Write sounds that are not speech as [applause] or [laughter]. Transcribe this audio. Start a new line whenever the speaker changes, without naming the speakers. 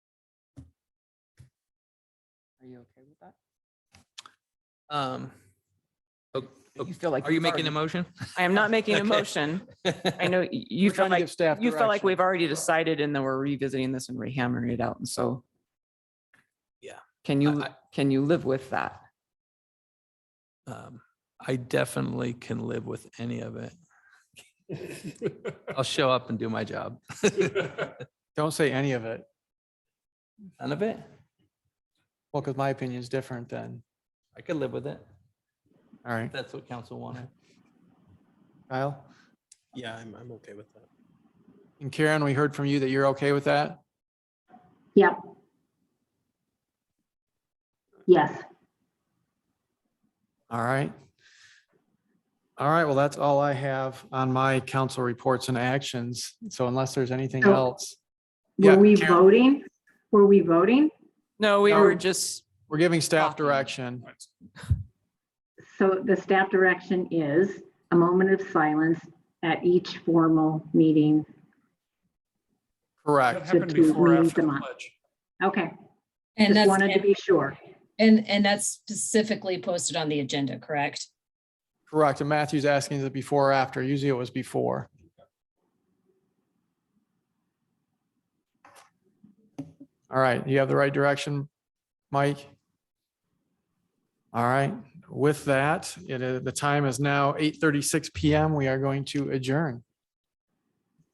Are you okay with that?
Um, o- o-
You feel like.
Oh, Are you
we've
making a
already-
motion?
I am not making a
Okay. [laughs]
motion. I know y- you
We're
feel
trying to
like,
give staff
you feel like
direction.
we've already decided and then we're revisiting this and rehammering it out. And so.
Yeah.
Can you,
I- I-
can you live with that?
Um, I definitely can live with any of [laughs] it. I'll show up and do my job.
Don't say any of it.
None of it?
Well, because my opinion is different then.
I could live with it.
All right,
if That's what council wanted.
Kyle.
Yeah, I'm, I'm okay with that.
And Karen, we heard from you that you're okay with that.
Yep. Yes.
All right. All right, well, that's all I have on my council reports and actions. So unless there's anything
Oh.
else, Yeah,
Were we
Karen.
voting? Were we voting?
No, we
No.
were just,
we're giving staff
Talking.
direction.
So the staff direction is a moment of silence at each formal meeting.
Correct.
happened before after the pledge? Okay,
And
just
that's,
wanted to be sure.
and, and that's specifically posted on the agenda, correct?
Correct. And Matthew's asking is it before or after? Usually it was before. All right, you have the right direction, Mike? All right, with that, it is, the time is now eight thirty-six PM. We are going to adjourn.